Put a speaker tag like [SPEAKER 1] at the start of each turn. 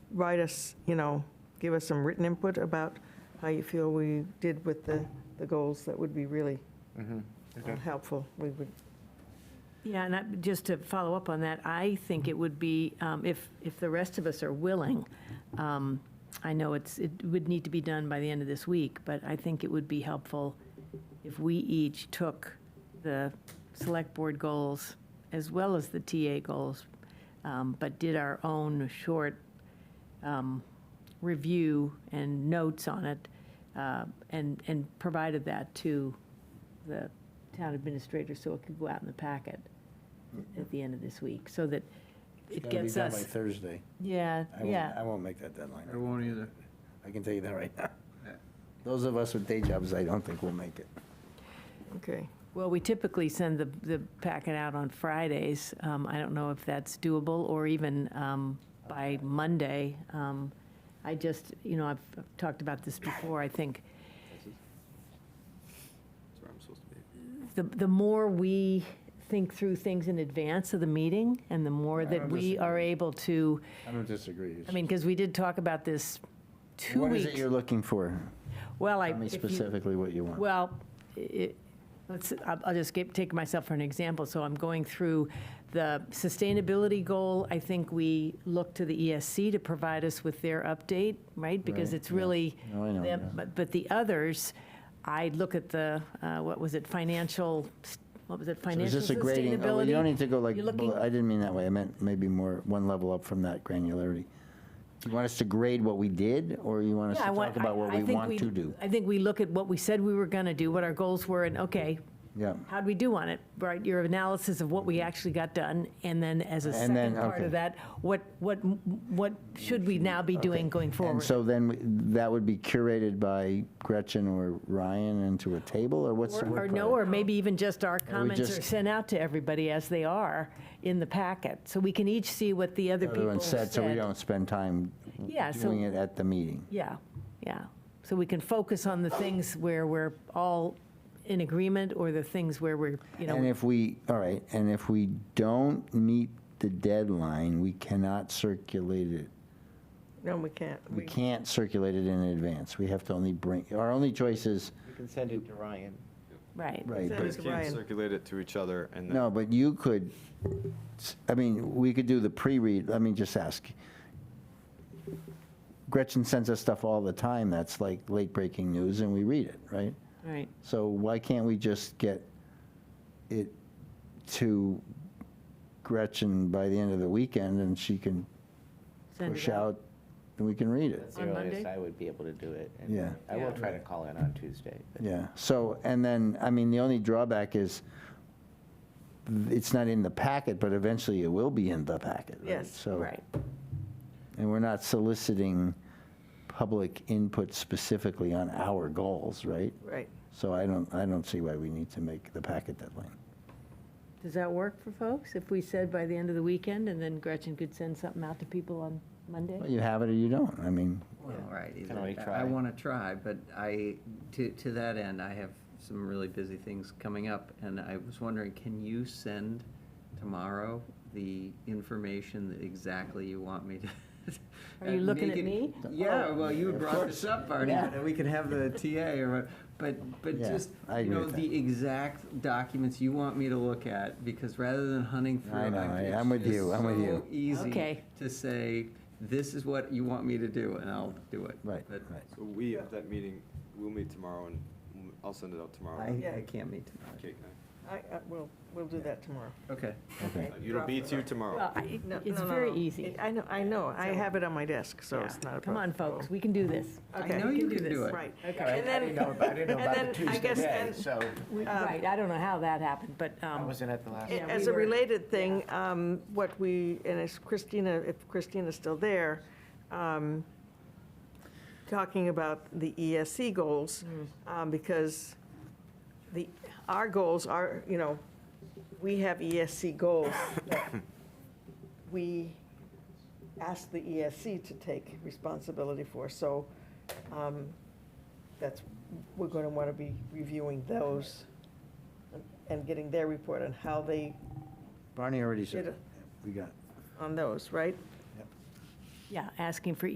[SPEAKER 1] write us, you know, give us some written input about how you feel we did with the, the goals, that would be really
[SPEAKER 2] Mm-hmm.
[SPEAKER 1] uh, helpful. We would,
[SPEAKER 3] Yeah, and I, just to follow up on that, I think it would be, um, if, if the rest of us are willing, um, I know it's, it would need to be done by the end of this week, but I think it would be helpful if we each took the select board goals as well as the TA goals, um, but did our own short, um, review and notes on it, uh, and, and provided that to the town administrator so it could go out in the packet at the end of this week, so that it gets us,
[SPEAKER 2] It's gotta be done by Thursday.
[SPEAKER 3] yeah,
[SPEAKER 2] I won't- I
[SPEAKER 3] yeah,
[SPEAKER 2] won't make that deadline.
[SPEAKER 4] I won't either.
[SPEAKER 2] I can tell you that right now. Those of us with day jobs, I don't think will make it.
[SPEAKER 1] okay.
[SPEAKER 3] well, we typically send the, the packet out on Fridays, um, I don't know if that's doable, or even, um, by Monday, um, I just, you know, I've I've talked about this before, I think,
[SPEAKER 4] That's where I'm supposed to be.
[SPEAKER 3] the, the more we think through things in advance of the meeting, and the more
[SPEAKER 2] I
[SPEAKER 3] that
[SPEAKER 2] don't
[SPEAKER 3] we are
[SPEAKER 2] disagree.
[SPEAKER 3] able to,
[SPEAKER 2] I don't disagree. It's
[SPEAKER 3] I mean, because we did talk about this
[SPEAKER 2] just-
[SPEAKER 3] two
[SPEAKER 2] What
[SPEAKER 3] weeks.
[SPEAKER 2] is it you're looking for?
[SPEAKER 3] Well, I.
[SPEAKER 2] Tell me
[SPEAKER 3] if you-
[SPEAKER 2] specifically what you want.
[SPEAKER 3] Well, it, let's, I'll I'll just get, take myself for an example. So I'm going through the sustainability goal. I think we look to the ESC to provide us with their update, right? Because
[SPEAKER 2] Right,
[SPEAKER 3] it's
[SPEAKER 2] yeah.
[SPEAKER 3] really.
[SPEAKER 2] No, I know,
[SPEAKER 3] them-
[SPEAKER 2] yeah.
[SPEAKER 3] But, but the others, I look at the, uh, what was it, financial, s- what was it,
[SPEAKER 2] So Is
[SPEAKER 3] financial
[SPEAKER 2] this a grading? Oh, You don't
[SPEAKER 3] sustainability?
[SPEAKER 2] need to go like,
[SPEAKER 3] You're looking-
[SPEAKER 2] bel- I didn't mean that way. I meant maybe more, one level up from that granularity. Do you want us to grade what we did, or you want us
[SPEAKER 3] Yeah,
[SPEAKER 2] to
[SPEAKER 3] I
[SPEAKER 2] talk
[SPEAKER 3] want- I-
[SPEAKER 2] about what
[SPEAKER 3] I
[SPEAKER 2] we
[SPEAKER 3] think
[SPEAKER 2] want to do?
[SPEAKER 3] I think we look at what we said we were going to do, what our goals were, and okay,
[SPEAKER 2] Yeah.
[SPEAKER 3] how'd we do on it, right? Your analysis of what we actually got done, and then as a
[SPEAKER 2] Mm-hmm. And then,
[SPEAKER 3] second part
[SPEAKER 2] okay.
[SPEAKER 3] of that, what, what, what should we now be doing going
[SPEAKER 2] And
[SPEAKER 3] forward?
[SPEAKER 2] so then we- that would be curated by Gretchen or Ryan into a table, or what's the
[SPEAKER 3] Or
[SPEAKER 2] word?
[SPEAKER 3] or no,
[SPEAKER 2] for it?
[SPEAKER 3] or maybe even just our comments are
[SPEAKER 2] just-
[SPEAKER 3] sent out to everybody as they are in the packet, so we can each see what the other people
[SPEAKER 2] Everyone
[SPEAKER 3] said.
[SPEAKER 2] said, so we don't spend time
[SPEAKER 3] Yeah, so-
[SPEAKER 2] doing it at the meeting.
[SPEAKER 3] Yeah, yeah. So we can focus on the things where we're all in agreement, or the things where we're, you know.
[SPEAKER 2] And if we, all right, and if we don't meet the deadline, we cannot circulate it.
[SPEAKER 1] No, we can't.
[SPEAKER 2] We can't circulate it in advance. We have to only bring, our only choice is,
[SPEAKER 5] You can send it to Ryan.
[SPEAKER 3] Right.
[SPEAKER 2] right,
[SPEAKER 1] Send
[SPEAKER 2] but-
[SPEAKER 1] it
[SPEAKER 4] Guys
[SPEAKER 1] to
[SPEAKER 4] can't
[SPEAKER 1] Ryan.
[SPEAKER 4] circulate it to each other and then.
[SPEAKER 2] no, but you could, s- I mean, we could do the pre-read, let me just ask. Gretchen sends us stuff all the time that's like late-breaking news, and we read it, right?
[SPEAKER 3] Right.
[SPEAKER 2] So why can't we just get it to Gretchen by the end of the weekend, and she can
[SPEAKER 3] Send it
[SPEAKER 2] push out, and we can read it.
[SPEAKER 5] That's the
[SPEAKER 3] On
[SPEAKER 5] earliest
[SPEAKER 3] Monday?
[SPEAKER 5] I would be able to do it. and
[SPEAKER 2] Yeah.
[SPEAKER 5] I will
[SPEAKER 3] Yeah.
[SPEAKER 5] try to call in on Tuesday. but-
[SPEAKER 2] Yeah, so, and then, I mean, the only drawback is it's not in the packet, but eventually it will be in the packet, right?
[SPEAKER 1] Yes,
[SPEAKER 2] So-
[SPEAKER 3] Right.
[SPEAKER 2] And we're not soliciting public input specifically on our goals, right?
[SPEAKER 1] Right.
[SPEAKER 2] So I don't, I don't see why we need to make the packet deadline.
[SPEAKER 3] Does that work for folks? If we said by the end of the weekend, and then Gretchen could send something out to people on Monday?
[SPEAKER 2] Well, You have it or you don't, I mean,
[SPEAKER 6] Well, right.
[SPEAKER 5] Can we
[SPEAKER 6] I-
[SPEAKER 5] try?
[SPEAKER 6] I want to try, but I, to, to that end, I have some really busy things coming up, and I was wondering, can you send tomorrow the information that exactly you want me to?
[SPEAKER 3] Are you
[SPEAKER 6] Uh,
[SPEAKER 3] looking
[SPEAKER 6] make
[SPEAKER 3] at
[SPEAKER 6] it-
[SPEAKER 3] me? Oh.
[SPEAKER 6] Yeah, well, you
[SPEAKER 2] Of
[SPEAKER 6] brought this up, Barney,
[SPEAKER 3] Yeah.
[SPEAKER 6] and we could have the TA or, what- but, but
[SPEAKER 2] Yeah,
[SPEAKER 6] just,
[SPEAKER 2] I
[SPEAKER 6] you
[SPEAKER 2] agree
[SPEAKER 6] know,
[SPEAKER 2] with
[SPEAKER 6] the exact documents you want me to look at, because rather than hunting through.
[SPEAKER 2] I know, I-
[SPEAKER 6] it's
[SPEAKER 2] I'm with
[SPEAKER 6] just
[SPEAKER 2] you, I'm with
[SPEAKER 6] so
[SPEAKER 2] you.
[SPEAKER 6] Easy
[SPEAKER 3] Okay.
[SPEAKER 6] to say, this is what you want me to do, and I'll do it.
[SPEAKER 2] right,
[SPEAKER 6] But
[SPEAKER 2] right.
[SPEAKER 4] So we, at that meeting, we'll meet tomorrow and we'll- I'll send it out tomorrow.
[SPEAKER 6] I, I can't meet tomorrow.
[SPEAKER 4] Okay,
[SPEAKER 1] I, I, we'll, we'll do that tomorrow.
[SPEAKER 6] Okay.
[SPEAKER 2] Okay.
[SPEAKER 4] uh, It'll be to you tomorrow.
[SPEAKER 3] Well, I-
[SPEAKER 1] No,
[SPEAKER 3] it's
[SPEAKER 1] no, no,
[SPEAKER 3] very
[SPEAKER 1] no.
[SPEAKER 3] easy.
[SPEAKER 1] I know, I know. I
[SPEAKER 3] So-
[SPEAKER 1] have it on my desk, so
[SPEAKER 3] Yeah.
[SPEAKER 1] it's not a problem.
[SPEAKER 3] Come on, folks, we can do this.
[SPEAKER 6] I
[SPEAKER 1] Okay.
[SPEAKER 6] know
[SPEAKER 1] We
[SPEAKER 6] you
[SPEAKER 3] do
[SPEAKER 6] can
[SPEAKER 3] this.
[SPEAKER 6] do it.
[SPEAKER 1] Right.
[SPEAKER 3] Okay.
[SPEAKER 5] All right,
[SPEAKER 1] And
[SPEAKER 5] I
[SPEAKER 1] then-
[SPEAKER 5] didn't know about, I didn't know
[SPEAKER 1] and
[SPEAKER 5] about
[SPEAKER 1] then
[SPEAKER 5] the
[SPEAKER 1] I
[SPEAKER 5] Tuesday
[SPEAKER 1] guess
[SPEAKER 5] day,
[SPEAKER 1] then-
[SPEAKER 5] so
[SPEAKER 3] We-
[SPEAKER 1] Um,
[SPEAKER 3] Right, I don't know how that happened, but,
[SPEAKER 5] I
[SPEAKER 3] um,
[SPEAKER 5] wasn't at the last.
[SPEAKER 3] Yeah,
[SPEAKER 1] As
[SPEAKER 3] we
[SPEAKER 1] a
[SPEAKER 3] were-
[SPEAKER 1] related thing, um, what we, and it's Christina, if Christina's still there, um, talking about the ESC goals,
[SPEAKER 3] Hmm.
[SPEAKER 1] um, because the, our goals are, you know, we have ESC goals that we ask the ESC to take responsibility for. So um, that's, we're going to want to be reviewing those and getting their report on how they
[SPEAKER 2] Barney already said
[SPEAKER 1] Did
[SPEAKER 2] it. We got it.
[SPEAKER 1] on those, right?
[SPEAKER 2] Yep.
[SPEAKER 3] Yeah, asking for